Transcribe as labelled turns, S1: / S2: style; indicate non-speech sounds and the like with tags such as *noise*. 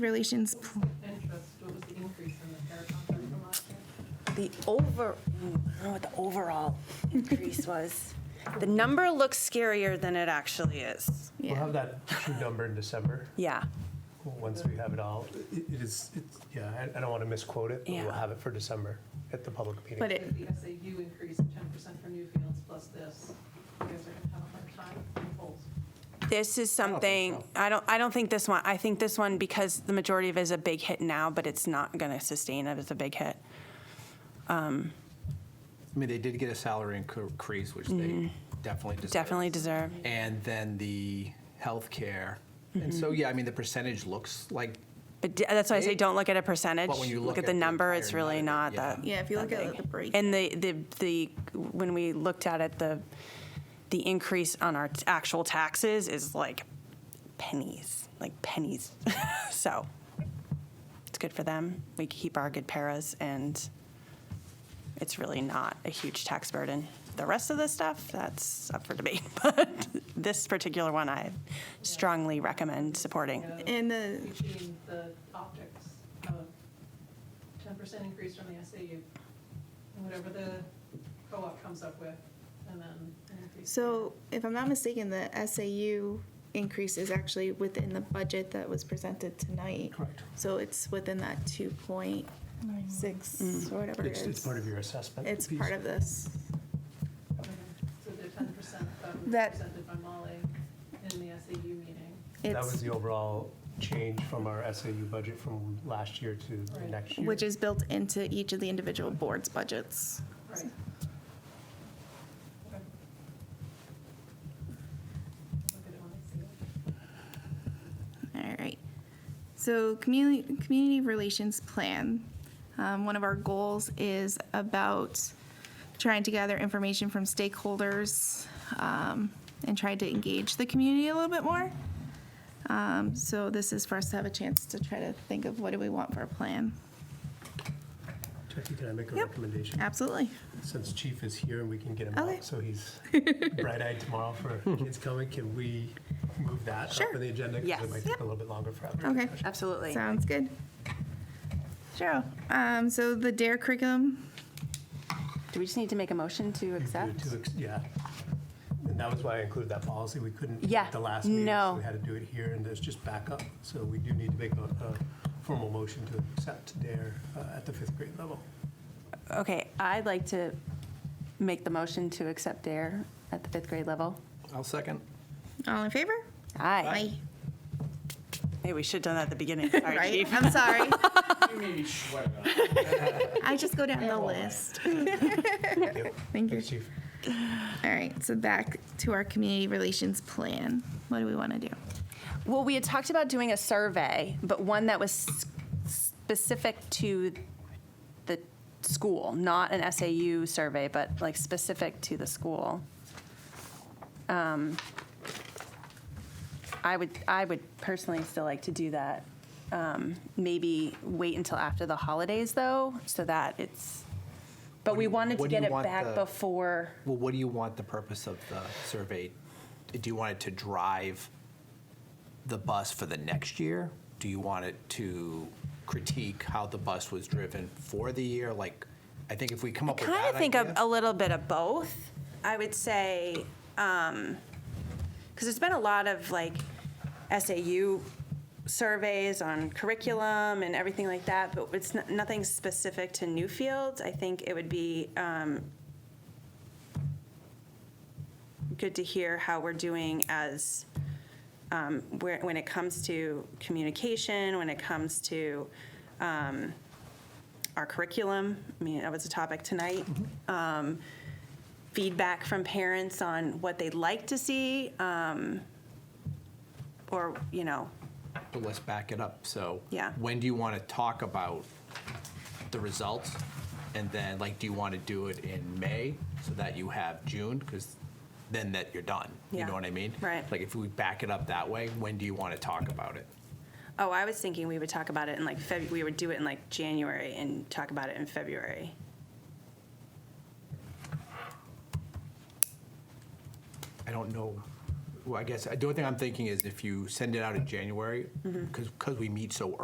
S1: Relations, pl-
S2: interest, what was the increase in the fair contract from last year?
S3: The over, mm, I don't know what the overall increase was. The number looks scarier than it actually is.
S1: yeah.
S4: We'll have that true number in December,
S3: Yeah,
S4: once we have it all. It it is, it's, yeah, I- I don't want to misquote it, but we'll
S3: Yeah.
S4: have it for December at the public meeting.
S1: But it,
S2: If the SAU increase of ten percent for Newfields plus this, you guys are gonna have a hard time in polls.
S3: this is something, I don't, I don't think this one, I think this one, because the majority of it is a big hit now, but it's not going to sustain it as a big hit.
S5: I mean, they did get a salary increase, which they definitely deserve.
S3: Mm-hmm. Definitely deserve.
S5: And then the healthcare. And
S3: Mm-hmm.
S5: so, yeah, I mean, the percentage looks like,
S3: But d- that's why I say, don't look at a percentage.
S5: But when you
S3: Look
S5: look
S3: at the
S5: at the
S3: number, it's
S5: entire
S3: really not
S5: number, yeah.
S3: that.
S1: yeah, if you look
S3: that
S1: at
S3: big.
S1: the break,
S3: And the, the, the, when we looked at it, the, the increase on our t- actual taxes is like pennies, like pennies. *laughs* So it's good for them. We keep our good paras and it's really not a huge tax burden. The rest of the stuff, that's up for debate, *laughs* but this particular one I strongly recommend supporting.
S1: and the,
S2: Between the optics of ten percent increase from the SAU, and whatever the co-op comes up with, and then an increase.
S1: so if I'm not mistaken, the SAU increase is actually within the budget that was presented tonight.
S4: Correct.
S1: So it's within that two point six
S4: Mm.
S1: or whatever it
S4: It's, it's
S1: is.
S4: part of your assessment.
S1: It's
S4: piece.
S1: part of this.
S2: Okay, So the ten percent that was
S1: That-
S2: presented by Molly in the SAU meeting.
S4: That was
S1: It's,
S4: the overall change from our SAU budget from last year to the
S2: Right.
S4: next year.
S1: which is built into each of the individual boards' budgets.
S2: Right. Okay. Look at it when I see it.
S1: All right. So community community relations plan. Um, one of our goals is about trying to gather information from stakeholders um, and try to engage the community a little bit more. Um, so this is for us to have a chance to try to think of what do we want for a plan.
S4: Jackie, can I make a
S1: Yep.
S4: recommendation?
S1: Absolutely.
S4: Since Chief is here and we can get him
S1: Okay.
S4: out, so he's
S1: *laughs*
S4: bright-eyed tomorrow for kids coming, can we move that up
S1: Sure.
S4: in the agenda?
S3: Yes.
S4: Because it might take
S1: Yep.
S4: a little bit longer for other
S1: Okay.
S4: discussion.
S3: Absolutely.
S1: Sounds good. Cheryl. Um, so the DARE curriculum.
S3: Do we just need to make a motion to
S4: You do
S3: accept?
S4: to ex- Yeah. And that was why I included that policy. We couldn't do it
S3: Yeah,
S4: at the last meeting.
S3: no.
S4: so We had to do it here and there's just backup. So we do need to make a, a formal motion to accept DARE uh, at the fifth grade level.
S3: Okay, I'd like to make the motion to accept DARE at the fifth grade level.
S5: I'll second.
S1: All in favor?
S3: Aye. Hey, we should have done that at the beginning. Sorry,
S1: Right?
S3: Chief.
S1: I'm
S3: *laughs*
S1: sorry.
S6: You made me sweat.
S1: *laughs* I just go down the list. Thank you.
S4: Thanks, Chief.
S1: All right, so back to our community relations plan. What do we want to do?
S3: Well, we had talked about doing a survey, but one that was s- specific to the school, not an SAU survey, but like specific to the school. Um, I would, I would personally still like to do that. Um, Maybe wait until after the holidays, though, so that it's, but we wanted to
S5: what do you
S3: get it
S5: want
S3: back
S5: the-
S3: before.
S5: Well, what do you want the purpose of the survey? Do you want it to drive the bus for the next year? Do you want it to critique how the bus was driven for the year? Like, I think if we come up with that
S3: kind of think of
S5: idea-
S3: a little bit of both. I would say, because there's been a lot of like SAU surveys on curriculum and everything like that, but it's n- nothing specific to Newfields. I think it would be um, good to hear how we're doing as um, where, when it comes to communication, when it comes to um, our curriculum. I mean, that was a topic tonight. Um, feedback from parents on what they'd like to see, um, or, you know,
S5: But let's back it up. So
S3: Yeah.
S5: when do you want to talk about the results? And then, like, do you want to do it in May so that you have June? Because then that you're done. You
S3: Yeah.
S5: know what I mean?
S3: Right.
S5: Like, if we back it up that way, when do you want to talk about it?
S3: oh, I was thinking we would talk about it in like Feb, we would do it in like January and talk about it in February.
S5: I don't know.
S3: Mm-hmm.
S5: Well, I guess, the only thing I'm thinking is if you send it out in January, because, because we meet so early.